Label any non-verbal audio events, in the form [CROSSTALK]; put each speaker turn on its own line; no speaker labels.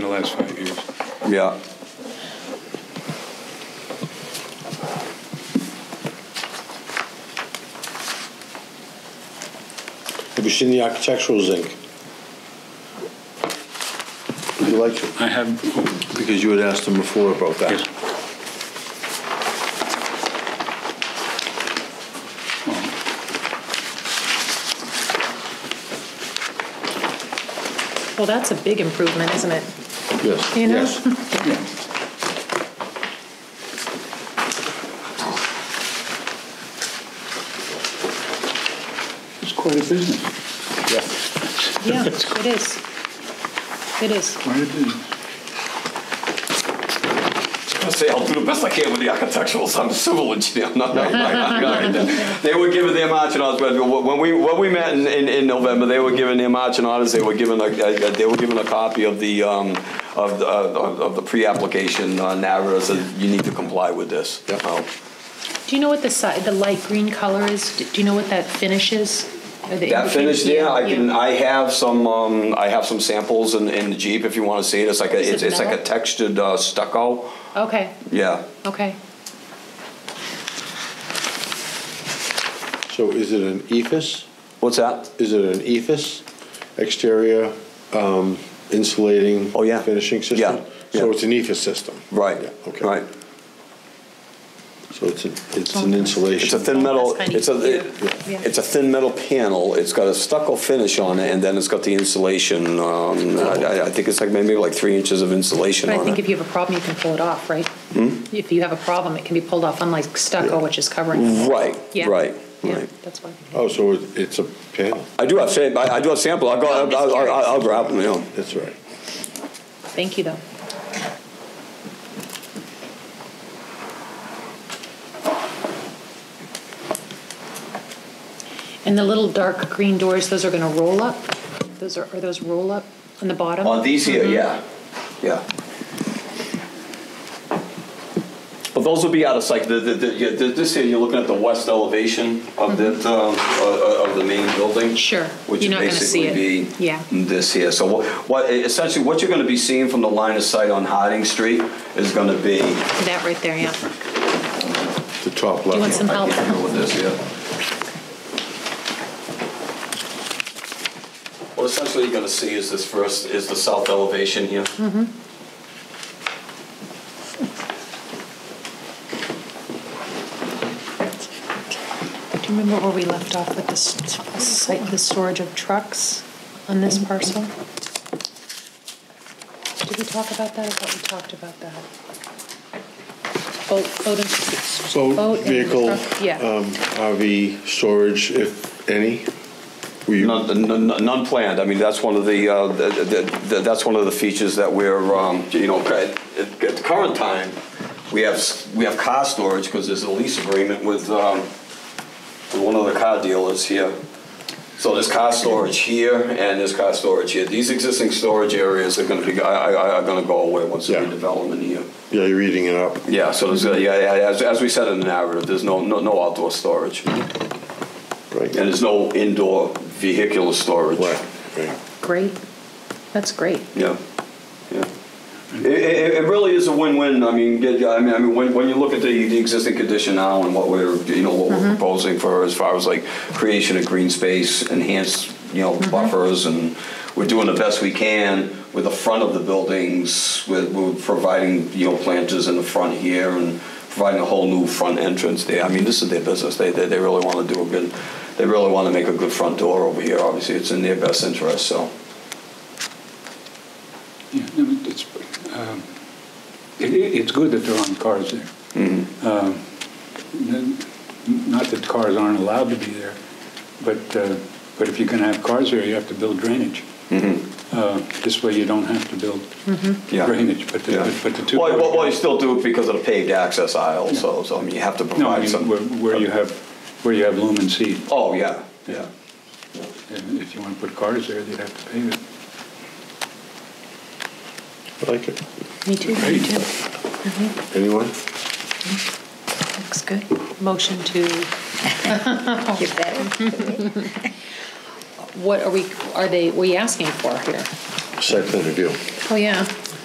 last five years.
Yeah.
Have you seen the architectural zinc?
Would you like to?
I have,
Because you had asked him before about that.
yes.
Well, that's a big improvement, isn't
[LAUGHS]
it?
Yes.
You know?
Yes.
It's quite a business,
Yeah, it is. It is.
quite a business.
I say I'll do the best I can with the architecturals. I'm a civil engineer. [LAUGHS] I'm not, I'm not- I'm not- They were given their marching orders but when we when we met in, in, in November. They were given their marching orders. They were given a, a, a- they were given a copy of the um, of the uh, of, of the pre-application uh, narrative. So you need to comply with this.
Yep.
Oh.
Do you know what the side, the light green color is? Do you know what that finish is? Or the
That finish
indicator?
there, I
Yeah.
can, I have some, um, I have some samples in, in the Jeep if you wanna see it, it's like a,
Is it
it's, it's like a
metal?
textured uh, stucco,
Okay,
yeah.
okay.
So is it an ephes?
What's that?
Is it an ephes exterior um, insulating?
Oh, yeah.
Finishing system?
Yeah,
So
yeah.
it's an ephes system?
Right,
Yeah, Okay.
right,
So it's an, it's an insulation?
it's a thin metal,
That's kinda
it's a, it-
Yeah.
it's a thin metal panel, it's got a stucco finish on it, and then it's got the insulation, um, I, I think it's like maybe like three inches of insulation
But I
on
think if
it.
you have a problem, you can pull it off, right?
Hmm?
If you have a problem, it can be pulled off, unlike stucco, which is covering. it.
Right,
Yeah.
right,
Yeah,
right.
that's why.
Oh, so it- it's a panel?
I do have, sa- I, I do have sample, I'll go,
I'm just
I'll, I'll,
curious.
I'll grab them, you know.
That's right.
Thank you, though. And the little dark green doors, those are going to roll up? Those are, are those roll up on the bottom?
On these here,
Mm-hmm.
yeah, yeah. But those would be out of sight, the, the, the, yeah, th- this here, you're looking at the west elevation
Mm-hmm.
of the, um, o- o- of the main building.
Sure.
Which
You're
would
not gonna see
basically
it.
be
Yeah.
this here, so what, what, essentially, what you're gonna be seeing from the line of sight on Harding Street is gonna be. I
That right there, yeah.
The top
you want
left.
some- Help.
can't go with this, yeah. What essentially you're gonna see is this first, is the south elevation here.
Do you remember where we left off with the s- site, the storage of trucks on this parcel? Did we talk about that? I thought we talked about that. Boat, boat and.
So
boat and
vehicle,
truck- Yeah.
um, RV storage, if any? Were you-
None, none- none planned. I mean, that's one of the, uh, the- the- the- that's one of the features that we're, um, you know, at at the current time, we have, s- we have car storage because there's a lease agreement with, um, with one of the car dealers here. So there's car storage here and there's car storage here. These existing storage areas are going to be, I- I- are going to go away once the
Yeah.
redevelopment here.
Yeah, you're eating it up.
Yeah, so there's, yeah, yeah, as, as we said in the narrative, there's no, no no outdoor storage.
Mm-hmm.
And
Right.
there's no indoor vehicular storage.
Right, right.
Great. That's great.
Yeah, yeah. It, it, it really is a win-win. I mean, get, I mean, I mean, when, when you look at the, the existing condition now and what we're, you know, what we're proposing for as far as like creation of green space, enhanced, you know, buffers, and we're doing the best we can with the front of the buildings. With, we're providing, you know, planters in the front here and providing a whole new front entrance there. I mean, this is their business. They, they, they really want to do a good. They really want to make a good front door over here. Obviously, it's in their best interest. So.
Yeah, no, it's, um, it- it- It's good that there aren't cars there.
Mm-hmm.
Um, n- Not that cars aren't allowed to be there, but, uh, but if you're going to have cars there, you have to build drainage. Uh, This way you don't have to build
Mm-hmm. Yeah.
drainage, but
Yeah.
the, but the two.
Well, well, well, you still do it because of the paved access aisle, so, so I mean, you have to
No, I
provide
mean,
some.
where- where you have, where you have lumen seed.
Oh, yeah, yeah.
And If you want to put cars there, they'd have to pave it.
I like it.
Me too, me
Great.
too.
Anyone?
Looks good. Motion to,
Get better?
[LAUGHS] what are we, are they, what are you asking for here?
Site plan review.
Oh, yeah.